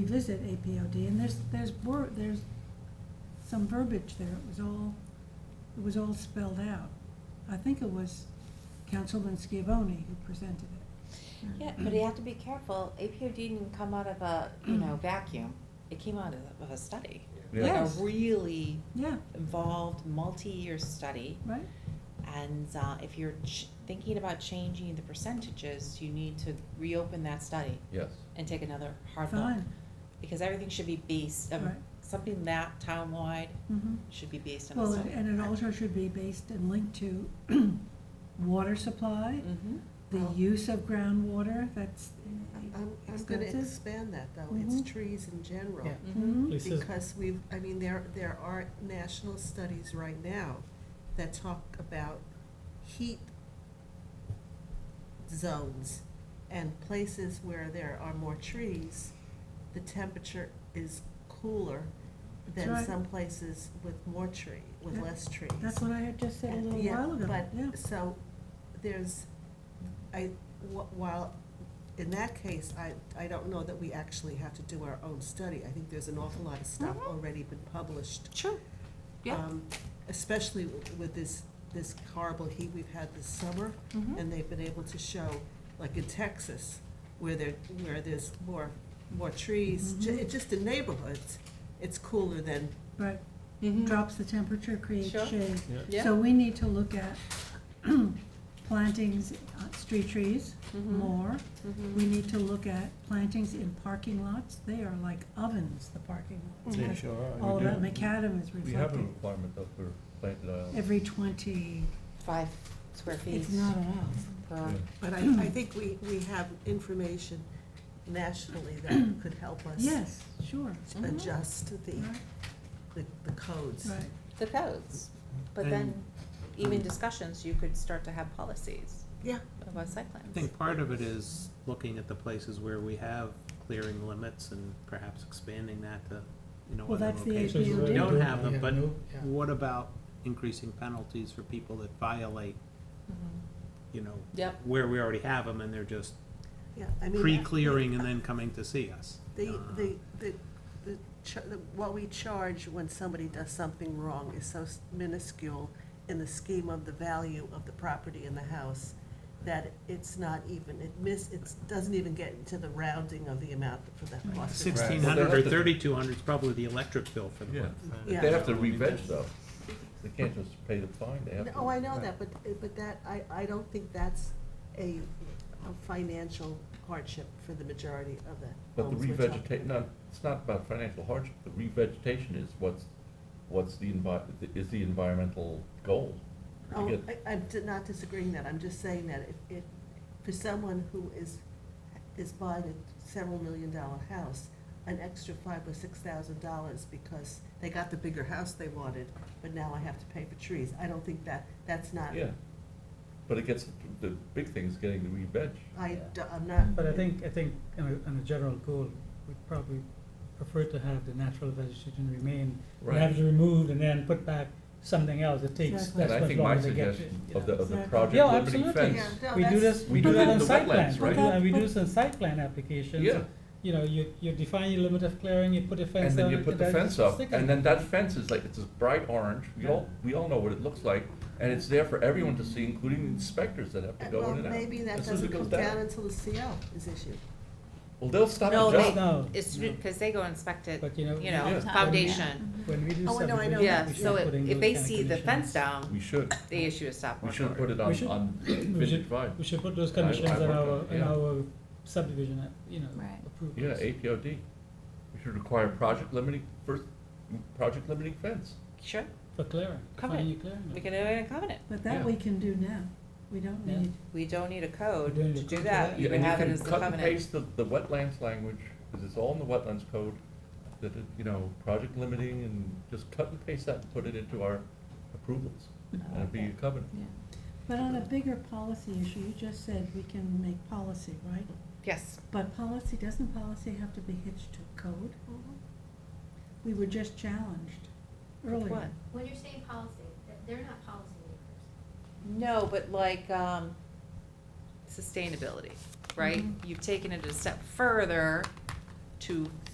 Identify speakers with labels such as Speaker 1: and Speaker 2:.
Speaker 1: revisit APOD, and there's, there's, wor- there's some verbiage there, it was all, it was all spelled out. I think it was Councilman Scavone who presented it.
Speaker 2: Yeah, but you have to be careful. APOD didn't come out of a, you know, vacuum. It came out of, of a study.
Speaker 1: Yeah.
Speaker 2: Like a
Speaker 1: Yes.
Speaker 2: really
Speaker 1: Yeah,
Speaker 2: involved, multi-year study.
Speaker 1: right?
Speaker 2: And, uh, if you're ch- thinking about changing the percentages, you need to reopen that study
Speaker 3: Yes.
Speaker 2: and take another hard look.
Speaker 1: Fine,
Speaker 2: Because everything should be based, um,
Speaker 1: right.
Speaker 2: something that town-wide
Speaker 1: mhm.
Speaker 2: should be based on a
Speaker 1: Well,
Speaker 2: study.
Speaker 1: and it also should be based and linked to water supply,
Speaker 2: Mm-hmm.
Speaker 1: the
Speaker 4: Well-
Speaker 1: use of groundwater, that's.
Speaker 4: I- I'm, I'm gonna
Speaker 1: Expensive?
Speaker 4: expand that though, it's
Speaker 1: Mhm.
Speaker 4: trees in general.
Speaker 5: Yeah.
Speaker 2: Mm-hmm.
Speaker 1: Mhm.
Speaker 5: Lisa's-
Speaker 4: Because we've, I mean, there, there are national studies right now that talk about heat zones and places where there are more trees, the temperature is cooler
Speaker 1: That's
Speaker 4: than
Speaker 1: right.
Speaker 4: some places with more tree, with
Speaker 1: Yeah.
Speaker 4: less trees.
Speaker 1: That's what I had just said a
Speaker 4: And-
Speaker 1: little
Speaker 4: yeah,
Speaker 1: while ago, yeah.
Speaker 4: But, so, there's, I, wh- while, in that case, I, I don't know that we actually have to do our own study. I think there's an awful lot of stuff
Speaker 1: Mm-hmm.
Speaker 2: Mhm.
Speaker 4: already been published.
Speaker 2: Sure. Yeah.
Speaker 4: um, Especially with- with this, this horrible heat we've had this summer,
Speaker 1: Mm-hmm.
Speaker 2: Mhm.
Speaker 4: and they've been able to show, like in Texas, where there, where there's more, more trees, ju-
Speaker 1: Mhm.
Speaker 4: just in neighborhoods, it's cooler than,
Speaker 1: Right,
Speaker 2: Mhm.
Speaker 1: drops the temperature, creates
Speaker 2: Sure.
Speaker 1: shade.
Speaker 2: Yeah.
Speaker 1: So we need to look at plantings, uh, street trees
Speaker 2: Mhm.
Speaker 1: more.
Speaker 2: Mhm.
Speaker 1: We need to look at plantings in parking lots. They are like ovens, the parking lots.
Speaker 2: Mm-hmm.
Speaker 3: They
Speaker 1: Has-
Speaker 3: sure are.
Speaker 1: All
Speaker 3: We
Speaker 1: that
Speaker 3: do.
Speaker 1: macadam is
Speaker 3: We have a
Speaker 1: reflected.
Speaker 3: requirement though for planted islands.
Speaker 1: Every twenty,
Speaker 2: Five square feet
Speaker 1: it's not enough.
Speaker 2: per,
Speaker 3: Yeah.
Speaker 4: but I, I think we, we have information nationally that could help us.
Speaker 1: Yes, sure,
Speaker 2: Mhm.
Speaker 4: adjust the,
Speaker 1: Mm-hmm. right,
Speaker 4: the, the codes.
Speaker 1: right.
Speaker 2: the codes. But
Speaker 5: And-
Speaker 2: then, even discussions, you could start to have policies
Speaker 4: Yeah,
Speaker 2: about site plans.
Speaker 5: I think part of it is looking at the places where we have clearing limits and perhaps expanding that to, you know,
Speaker 1: Well,
Speaker 5: other
Speaker 1: that's the
Speaker 5: locations.
Speaker 1: APOD.
Speaker 5: where We don't have
Speaker 6: Yeah,
Speaker 5: them, but
Speaker 6: no, yeah.
Speaker 5: what about increasing penalties for people that violate,
Speaker 2: Mhm.
Speaker 5: you know,
Speaker 2: Yep.
Speaker 5: where we already have them and they're just
Speaker 4: yeah, I mean.
Speaker 5: pre-clearing and then coming to see us?
Speaker 4: The,
Speaker 5: Uh,
Speaker 4: the, the, the, cha- the- what we charge when somebody does something wrong is so minuscule in the scheme of the value of the property in the house that it's not even, it miss, it doesn't even get into the rounding of the amount for the cost. of-
Speaker 5: Sixteen
Speaker 3: Well,
Speaker 5: hundred
Speaker 3: they
Speaker 5: or
Speaker 3: have to-
Speaker 5: thirty-two hundred is probably the electric bill for the
Speaker 3: Yeah.
Speaker 5: month.
Speaker 4: Yeah.
Speaker 3: They have to
Speaker 5: So, I mean,
Speaker 3: re-veg
Speaker 5: there's-
Speaker 3: though. They can't just pay the fine, they have to.
Speaker 4: Oh, I know that, but, but that, I, I don't think that's a, a financial hardship for the majority of the
Speaker 3: But the
Speaker 4: homes we're talking
Speaker 3: revegeta,
Speaker 4: about.
Speaker 3: no, it's not about financial hardship, the revegetation is what's, what's the envi, is the environmental goal. to
Speaker 4: Oh,
Speaker 3: get-
Speaker 4: I, I'm di- not disagreeing that, I'm just saying that if, if, for someone who is, is buying a several million dollar house, an extra five or six thousand dollars because they got the bigger house they wanted, but now I have to pay for trees, I don't think that, that's not,
Speaker 3: Yeah, but it gets, the big thing is getting the re-veg.
Speaker 4: I, d- I'm not.
Speaker 6: But I think, I think on a, on a general goal, we'd probably prefer to have the natural vegetation remain.
Speaker 3: Right.
Speaker 6: Have it removed and then put back something else, it takes,
Speaker 1: Exactly.
Speaker 6: that's
Speaker 3: And I
Speaker 6: much
Speaker 3: think my
Speaker 6: longer to get.
Speaker 3: suggestion
Speaker 6: you
Speaker 3: of the,
Speaker 6: know.
Speaker 3: of the
Speaker 1: Yeah.
Speaker 3: project
Speaker 6: Yeah,
Speaker 3: limiting
Speaker 6: absolutely.
Speaker 3: fence.
Speaker 4: Yeah, no,
Speaker 6: We do
Speaker 4: that's-
Speaker 6: this,
Speaker 3: we
Speaker 6: we do
Speaker 3: did
Speaker 6: that
Speaker 3: it in
Speaker 6: on
Speaker 3: the
Speaker 6: site
Speaker 3: wetlands,
Speaker 6: plans,
Speaker 3: right?
Speaker 6: yeah, we
Speaker 1: But-
Speaker 6: do this on site plan applications.
Speaker 3: Yeah.
Speaker 6: You know, you, you define your limit of clearing, you put a fence
Speaker 3: And
Speaker 6: up.
Speaker 3: then you put the fence up,
Speaker 6: stick it
Speaker 3: and
Speaker 6: there.
Speaker 3: then that fence is like, it's this bright orange, we all, we all know what it looks like, and it's there for everyone to see, including the inspectors that have to
Speaker 4: Uh,
Speaker 3: go
Speaker 4: Well,
Speaker 3: in and out.
Speaker 4: maybe that
Speaker 3: As soon as it
Speaker 4: doesn't come
Speaker 3: goes
Speaker 4: down until the CO is issued.
Speaker 3: Well, they'll stop
Speaker 2: No,
Speaker 3: and
Speaker 2: they,
Speaker 3: just,
Speaker 6: No,
Speaker 2: it's,
Speaker 6: no.
Speaker 2: because they go inspect it,
Speaker 6: But,
Speaker 2: you
Speaker 6: you know,
Speaker 2: know,
Speaker 3: Yeah.
Speaker 2: foundation.
Speaker 1: Mm-hmm.
Speaker 6: When we do
Speaker 4: Oh, I know, I know.
Speaker 6: subdivision,
Speaker 2: Yeah,
Speaker 6: we
Speaker 2: so
Speaker 6: should put in
Speaker 2: if, if
Speaker 6: those
Speaker 2: they
Speaker 6: kind of
Speaker 2: see the fence
Speaker 6: conditions.
Speaker 2: down,
Speaker 3: we should,
Speaker 2: they issue a stop
Speaker 3: we
Speaker 2: work
Speaker 3: should put
Speaker 2: order.
Speaker 3: it on,
Speaker 6: should-
Speaker 3: on
Speaker 6: We
Speaker 3: vintage
Speaker 6: should,
Speaker 3: vibe.
Speaker 6: we should put those
Speaker 3: I-
Speaker 6: conditions
Speaker 3: I
Speaker 6: in
Speaker 3: work
Speaker 6: our,
Speaker 3: on-
Speaker 6: in
Speaker 3: yeah.
Speaker 6: our subdivision, uh, you know,
Speaker 2: Right.
Speaker 6: approvals.
Speaker 3: Yeah, APOD. We should require project limiting, first, project limiting fence.
Speaker 2: Sure,
Speaker 6: For clearing,
Speaker 2: Cover
Speaker 6: finding
Speaker 2: it.
Speaker 6: your clearing.
Speaker 2: we can do it in a covenant.
Speaker 1: But that
Speaker 3: Yeah.
Speaker 1: we can do now. We don't
Speaker 6: Yeah.
Speaker 1: need,
Speaker 2: We don't need a code
Speaker 6: We don't need
Speaker 2: to
Speaker 6: a
Speaker 2: do
Speaker 6: code for
Speaker 2: that,
Speaker 6: that.
Speaker 2: you
Speaker 3: Yeah,
Speaker 2: can
Speaker 3: and
Speaker 2: have it
Speaker 3: can
Speaker 2: as the
Speaker 3: Cut and
Speaker 2: covenant.
Speaker 3: paste the, the wetlands language, because it's all in the wetlands code, that, it- you know, project limiting, and just cut and paste that and put it into our approvals. And it'd be a covenant.
Speaker 1: but on a bigger policy issue, you just said we can make policy, right?
Speaker 2: Yes,
Speaker 1: But policy, doesn't policy have to be hitched to code? We were just challenged earlier.
Speaker 2: what?
Speaker 7: When you're saying policy, th- they're not policymakers.
Speaker 2: No, but like, um, sustainability, right?
Speaker 1: Mhm.
Speaker 2: You've taken it a step further to